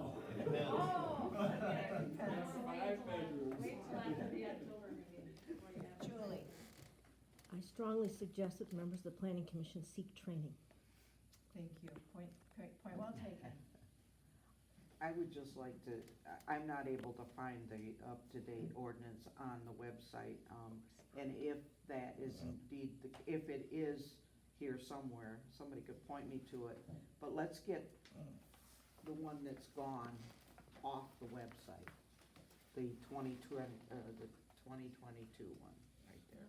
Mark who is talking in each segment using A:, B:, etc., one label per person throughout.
A: Oh.
B: That's
A: Wait till I-
B: bedrooms.
A: Wait till after the October meeting. before you have it.
C: Julie,
D: I strongly suggest that the members of the planning commission seek training.
C: thank you. Point, point point well taken.
E: I would just like to, I- I'm not able to find the up-to-date ordinance on the website. um, And if that is indeed, the- if it is here somewhere, somebody could point me to it. But let's get the one that's gone off the website, the 2020, uh, the 2022 one, right there.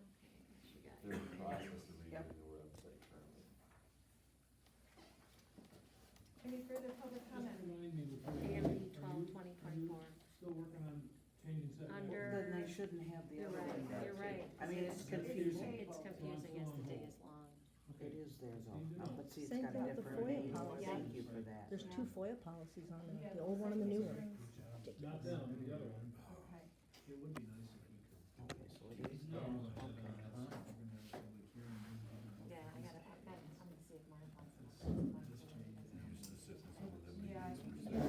E: She got it.
F: They're in the process of
E: Yep.
F: redoing the website currently.
C: Any further public
B: Just
C: comment?
B: remind me before. you- are
G: AMP
B: you-
G: twelve twenty twenty-four.
B: Still working on changing setback?
G: Under-
E: Then they shouldn't have the
G: You're
E: other one.
G: right,
E: there,
G: you're
E: too.
G: right.
E: I mean, it's confusing.
G: It's confusing as the day is long.
E: It
B: Okay.
E: is there though,
B: Leave it
E: Uh, but see, it's
D: Same
E: got
D: thing
E: a
D: with the
E: different
D: FOIA
E: name.
D: policy.
E: Thank you for that.
D: There's
C: Yeah.
D: two FOIA policies on there,
C: Yeah,
D: Uh, the old one and the new one.
B: Not that one, the other one.
C: Okay.
H: It would be nice if we could.
E: Okay, so it is there.
H: No, we're gonna have
E: Okay.
H: a public hearing.
G: Yeah, I gotta, I gotta, I'm gonna see if Mark wants to.
H: Just change the use of the system.
C: Yeah. I think- All right,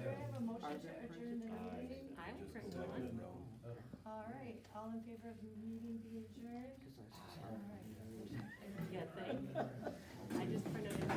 C: do I have a motion to adjourn the meeting?
G: I will print one.
C: All right, all in favor of the meeting being adjourned?
E: Because I was just-
C: All right.
G: Yeah, thank you. I just printed it.